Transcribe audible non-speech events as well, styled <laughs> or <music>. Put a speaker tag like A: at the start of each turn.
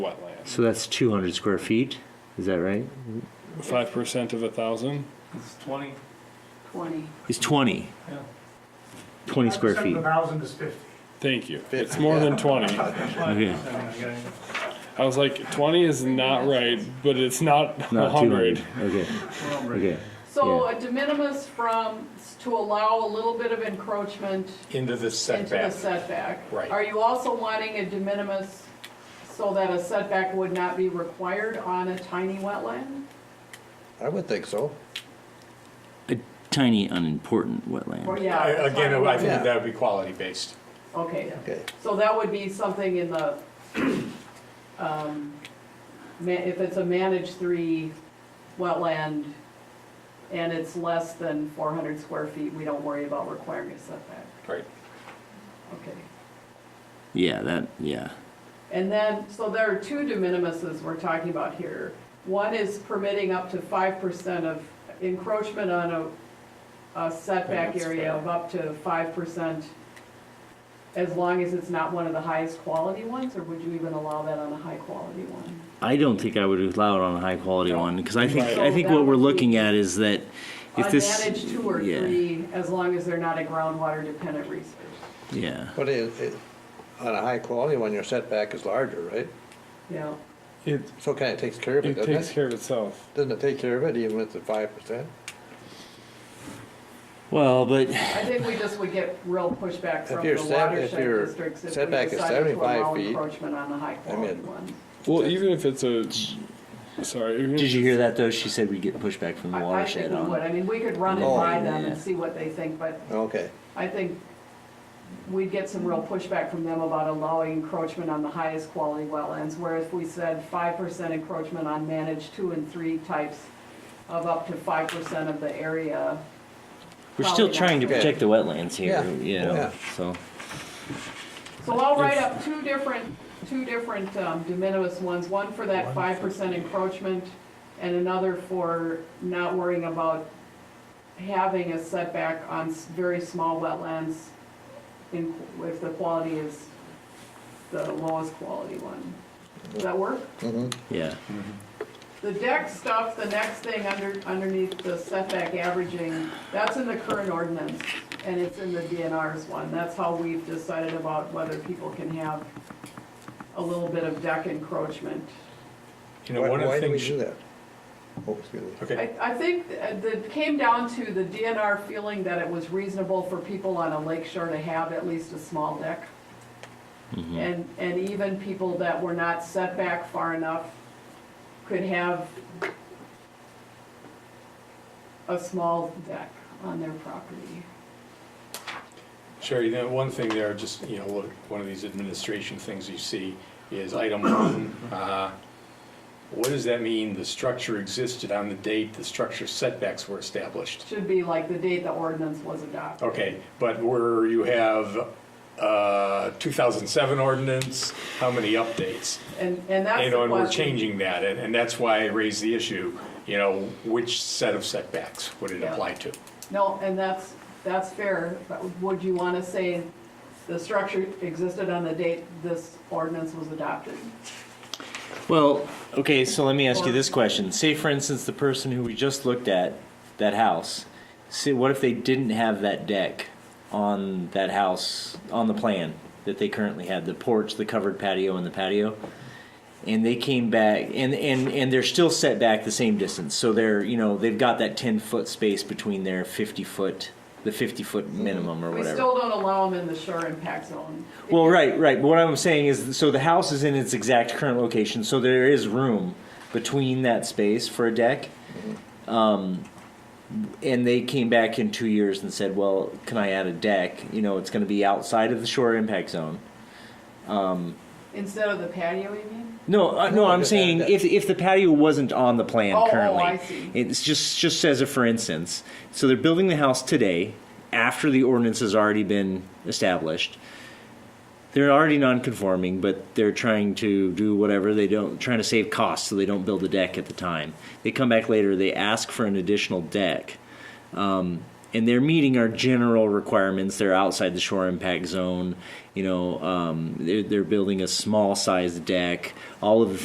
A: So that's 200 square feet, is that right?
B: Five percent of a thousand?
C: It's twenty.
D: twenty.
A: It's 20.
C: Yeah.
A: 20 square
E: Seven
A: feet.
E: thousand is fifty.
B: Thank you. It's more than <laughs> twenty.
A: Okay.
B: I was like, twenty is not right, but it's not a
A: Not 200.
B: hundred.
A: Okay. Okay.
D: So a de minimis from, to allow a little bit of encroachment
F: into the
D: into the
F: setback.
D: setback.
F: Right.
D: Are you also wanting a de minimis so that a setback would not be required on a tiny wetland?
G: I would think so.
H: A tiny unimportant wetland.
D: Or,
F: I-
D: yeah.
F: Again, I think
G: Yeah.
F: that would be quality-based.
D: Okay,
G: Okay.
D: so that would be something in the, um, ma- if it's a managed three wetland and it's less than four hundred square feet, we don't worry about requiring a setback,
F: Right.
D: okay?
H: Yeah, that, yeah.
D: And then, so there are two de minimises we're talking about here. One is permitting up to five percent of encroachment on a, a setback
F: That's
D: area
F: fair.
D: of up to five percent as long as it's not one of the highest quality ones, or would you even allow that on a high quality one?
H: I don't think I would allow it on a high quality one because I think
D: So
H: I think
D: that
H: what we're
D: would be-
H: looking at is that if this
D: Unmanaged two or
H: yeah,
D: three, as long as they're not a groundwater dependent resource.
H: yeah.
G: But it, it, on a high quality one, your setback is larger, right?
D: Yeah,
B: It,
G: So kind of takes care of it,
B: it
G: doesn't
B: takes
G: it?
B: care of itself.
G: Doesn't it take care of it even with the five percent?
H: Well, but
D: I think we just would get real pushback from
G: your
D: the
G: set- if your
D: watershed districts if we
G: setback is
D: decided to
G: 75
D: allow
G: feet,
D: encroachment on the high quality
G: mean,
D: ones.
B: Well, even if it's a, sorry. even if
H: did you
B: it's-
H: hear that though? She said we'd get pushback from the
D: I- I
H: watershed
D: think we would,
H: on. it.
D: I mean, we could run it
G: Oh,
D: by them
H: yeah.
D: and see what they think, but
G: Okay,
D: I think we'd get some real pushback from them about allowing encroachment on the highest quality wetlands, where if we said five percent encroachment on managed two and three types of up to five percent of the area.
H: We're still
D: probably not.
H: trying to protect the wetlands here.
G: Yeah,
H: You know,
G: yeah.
H: So
D: So I'll write up two different, two different um, de minimis ones, one for that five percent encroachment and another for not worrying about having a setback on s- very small wetlands in, if the quality is the lowest quality one. Does that work?
H: yeah.
D: The deck stuff, the next thing under, underneath the setback averaging, that's in the current ordinance, and it's in the DNR's one. That's how we've decided about whether people can have a little bit of deck encroachment.
F: You know,
G: why,
F: one of
G: why
F: the
G: do we
F: things,
G: do that? Oh, excuse me.
F: okay,
D: I, I think uh, that that came down to the DNR feeling that it was reasonable for people on a lake shore to have at least a small deck. And, and even people that were not set back far enough could have a small deck on their property.
F: Sherry, you know, one thing there, just, you know, look, one of these administration things you see is item one,
G: Mm-hmm.
F: uh, what does that mean, the structure existed on the date the structure setbacks were established?
D: Should be like the date the ordinance was adopted.
F: Okay, but where you have, uh, two thousand seven ordinance, how many updates?
D: And, and that's the
F: You know,
D: question.
F: and we're changing that, and, and that's why I raised the issue, you know, which set of setbacks would it
D: Yeah.
F: apply to?
D: No, and that's, that's fair, but would you want to say the structure existed on the date this ordinance was adopted?
H: Well, okay, so let me ask you this question. Say, for instance, the person who we just looked at, that house, say, what if they didn't have that deck on that house, on the plan that they currently had, the porch, the covered patio, and the patio? And they came back, and, and, and they're still set back the same distance. So they're, you know, they've got that 10 foot space between their 50 foot, the 50 foot minimum or
D: We
H: whatever.
D: still don't allow them in the shore impact zone.
H: Well, right, right. But what I'm saying is, so the house is in its exact current location, so there is room between that space for a deck. Um, and they came back in two years and said, "Well, can I add a deck? You know, it's going to be outside of the shore impact zone."
D: Instead of the patio, you mean?
H: No, uh, no,
G: No,
H: I'm
G: just add a
H: saying
G: deck.
H: if if the patio wasn't on the plan
D: Oh, oh,
H: currently,
D: I see.
H: it's just just as a for instance. So they're building the house today after the ordinance has already been established. They're already non-conforming, but they're trying to do whatever they don't trying to save costs, so they don't build a deck at the time. They come back later, they ask for an additional deck Um, and they're meeting our general requirements. They're outside the shore impact zone. You know, um, they're, they're building a small sized deck. All of the